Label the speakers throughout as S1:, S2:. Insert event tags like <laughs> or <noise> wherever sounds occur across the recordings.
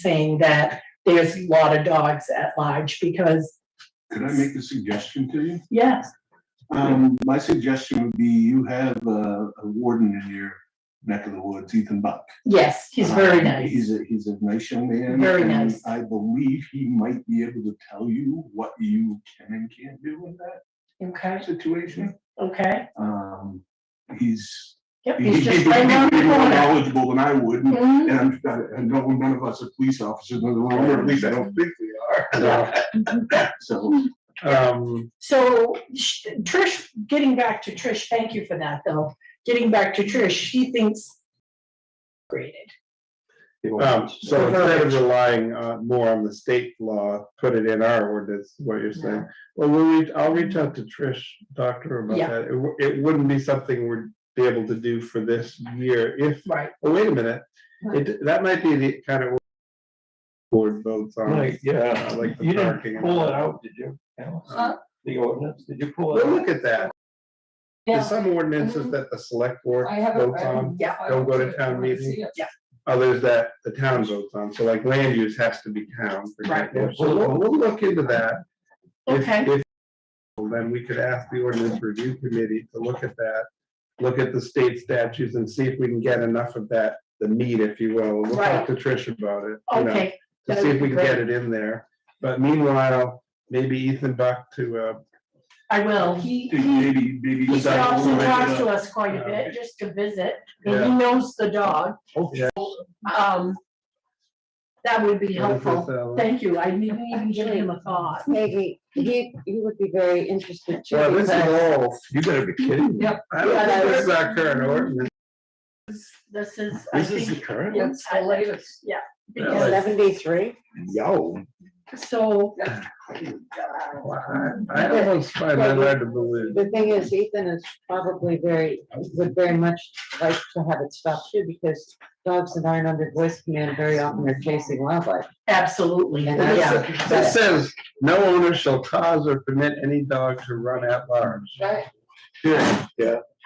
S1: saying that there's a lot of dogs at large because,
S2: Could I make a suggestion to you?
S1: yes,
S2: Um, my suggestion would be you have a, a warden in your neck of the woods, Ethan Buck.
S1: yes, he's very
S2: Um,
S1: nice.
S2: He's a, he's a nice young man.
S1: Very
S2: and
S1: nice.
S2: I believe he might be able to tell you what you can and can't do in that
S1: Okay,
S2: situation.
S1: okay.
S2: Um, he's.
S1: Yep,
S2: he-
S1: he's
S2: he'd
S1: just
S2: be
S1: right around the
S2: more
S1: corner.
S2: Knowledgeable than I would, and
S1: Mhm.
S2: I'm, I I know none of us are police officers, none of them, or at least I don't think we
S3: No.
S2: are. <laughs> So,
S3: Um,
S1: So sh- Trish, getting back to Trish, thank you for that though. Getting back to Trish, she thinks graded.
S3: um, so instead of relying uh more on the state law, put it in our ordinance, what you're saying. Well, we'll, reach- I'll reach out to Trish, doctor about
S1: Yeah.
S3: that. It, w- it wouldn't be something we'd be able to do for this year if,
S1: Right.
S3: oh, wait a minute. It, that might be the kind of board votes on.
S4: Right, yeah,
S3: uh, Like
S4: you
S3: the
S4: didn't
S3: parking. and
S4: pull
S3: all
S4: it
S3: that.
S4: out, did you? Alice?
S1: Huh?
S4: The ordinance, did you pull it
S3: Well,
S4: out?
S3: look at that. There's some
S1: Mm-hmm.
S3: ordinances that the select board votes on,
S1: Yeah,
S3: don't go to town meeting.
S1: Yeah.
S3: Others that the town votes on, so like land use has to be town. for
S1: Right.
S3: example. So we'll, we'll look into that. If-
S1: okay,
S3: if- Then we could ask the ordinance review committee to look at that, look at the state statutes and see if we can get enough of that, the meat, if you will. We'll talk to Trish about it. you know,
S1: okay,
S3: To see if we can get it in there. But meanwhile, maybe Ethan Buck to, uh,
S1: I will. He,
S2: think
S1: he
S2: maybe, maybe.
S1: He stops and
S2: Right,
S1: talks
S2: uh,
S1: to us quite a
S3: Yeah.
S1: bit, just to visit, and he
S3: yeah.
S1: knows the dog.
S3: Yeah.
S1: Um, that would be
S3: what is this,
S1: helpful.
S3: Alan?
S1: Thank you. I didn't even give him a thought.
S5: Maybe, he, he would be very interested too.
S3: Well, this is
S5: because-
S3: all, you better be kidding me.
S1: Yep.
S3: I don't
S1: Yeah,
S3: think
S1: that
S3: this is our current ordinance.
S1: This is, I think,
S4: current?
S1: Yeah. What's the
S4: latest?
S1: yeah.
S3: Yeah,
S1: because-
S3: like-
S5: Seventy-three,
S3: Yo.
S1: So,
S3: I I almost find that hard to believe.
S5: the thing is Ethan is probably very, would very much like to have it stopped too, because dogs that aren't under voice command very often are chasing wildlife.
S1: absolutely,
S5: And
S1: yeah,
S5: that's-
S3: This says, no owner shall cause or permit any dog to run at large.
S5: Right.
S3: Period.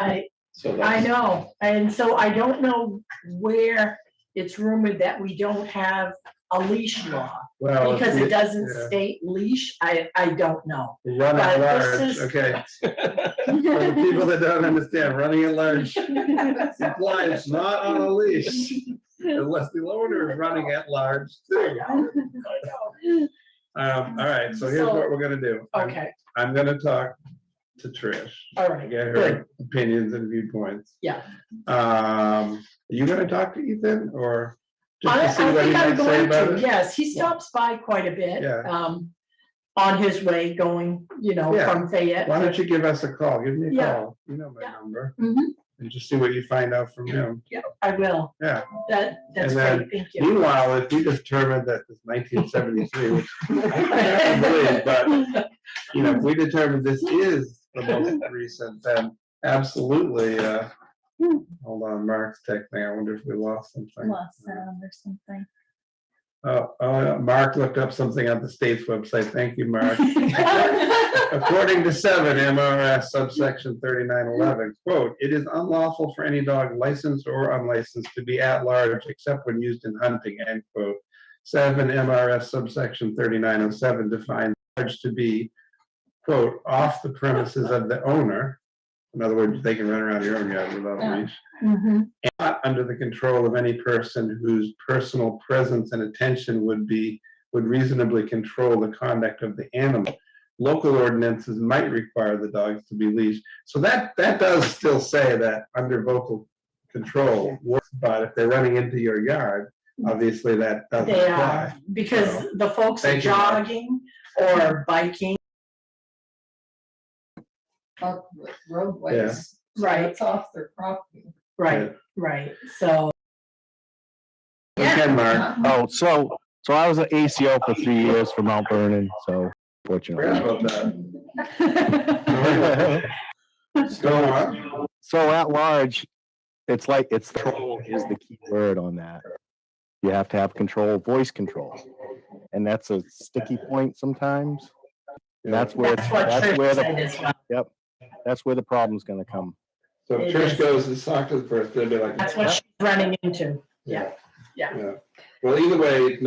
S1: I,
S4: So
S1: I
S4: that's,
S1: know. And so I don't know where it's rumored that we don't have a leash law,
S3: Well, if
S1: because it
S3: you-
S1: doesn't
S3: Oh, yeah.
S1: state leash. I, I don't know.
S3: run
S1: but
S3: at
S1: this
S3: large,
S1: is-
S3: okay.
S1: <laughs>
S3: For the people that don't understand, running at large implies not on a leash unless the owner is running at large too. Um, all right, so here's
S1: So-
S3: what we're gonna do. I'm-
S1: Okay,
S3: I'm gonna talk to Trish.
S1: all
S3: I
S1: right.
S3: get
S1: Good.
S3: her opinions and viewpoints.
S1: Yeah.
S3: Um, are you gonna talk to Ethan or just
S1: I, I
S3: to see what he
S1: think I'm
S3: might say
S1: going
S3: about
S1: to,
S3: it?
S1: yes, he stops by quite a bit.
S3: Yeah.
S1: Um, on his way going, you know,
S3: Yeah.
S1: from Fayette.
S3: Why don't you give us a call? Give me a
S1: Yeah.
S3: call. You know my
S1: Yeah.
S3: number
S1: Mhm,
S3: and just see what you find out from him.
S1: I will.
S3: Yeah.
S1: That, that's
S3: And then
S1: great, thank you.
S3: Meanwhile, if we determine that this nineteen
S1: <laughs>
S3: seventy-three, which I can't believe, but you know, if we determine this is the most
S1: <laughs>
S3: recent, then absolutely, uh,
S1: Hmm.
S3: hold on, Mark's texting. I wonder if we lost
S6: <laughs>
S3: something.
S6: Lost sound or something.
S3: Oh, oh, yeah, Mark looked up something on the state's website. Thank you, Mark. According to seven MRS subsection thirty-nine eleven, quote, "It is unlawful for any dog licensed or unlicensed to be at large except when used in hunting," end quote. Seven MRS subsection thirty-nine oh seven defines large to be, quote, "off the premises of the owner." In other words, they can run around your own yard without a
S6: Yeah.
S3: leash
S1: Mhm,
S3: not under the control of any person whose personal presence and attention would be, would reasonably control the conduct of the animal. Local ordinances might require the dogs to be leashed. So that, that does still say that under vocal control, but if they're running into your yard, obviously that doesn't
S1: Mm-hmm. They
S3: apply.
S1: are, <laughs> because the folks are
S3: Thank you, Mark.
S1: jogging or biking,
S7: off roadways. so
S1: Right.
S7: It's off their property.
S1: right, right, so.
S3: Again, Mark,
S8: Oh, so, so I was an ACO for three years for Mount Vernon, so
S3: forget
S8: fortunately.
S3: about
S8: <laughs>
S3: that. Go on.
S8: So at large, it's like, it's control is the key word on that. You have to have control, voice control. And that's a sticky point sometimes. And that's where,
S1: That's what
S8: that's where
S1: Trish said as
S8: the,
S1: well.
S8: that's where the problem's gonna come.
S3: So if Trish goes and talks to the person, they'll be like.
S1: That's what she's running into.
S3: Yeah. Well, either way,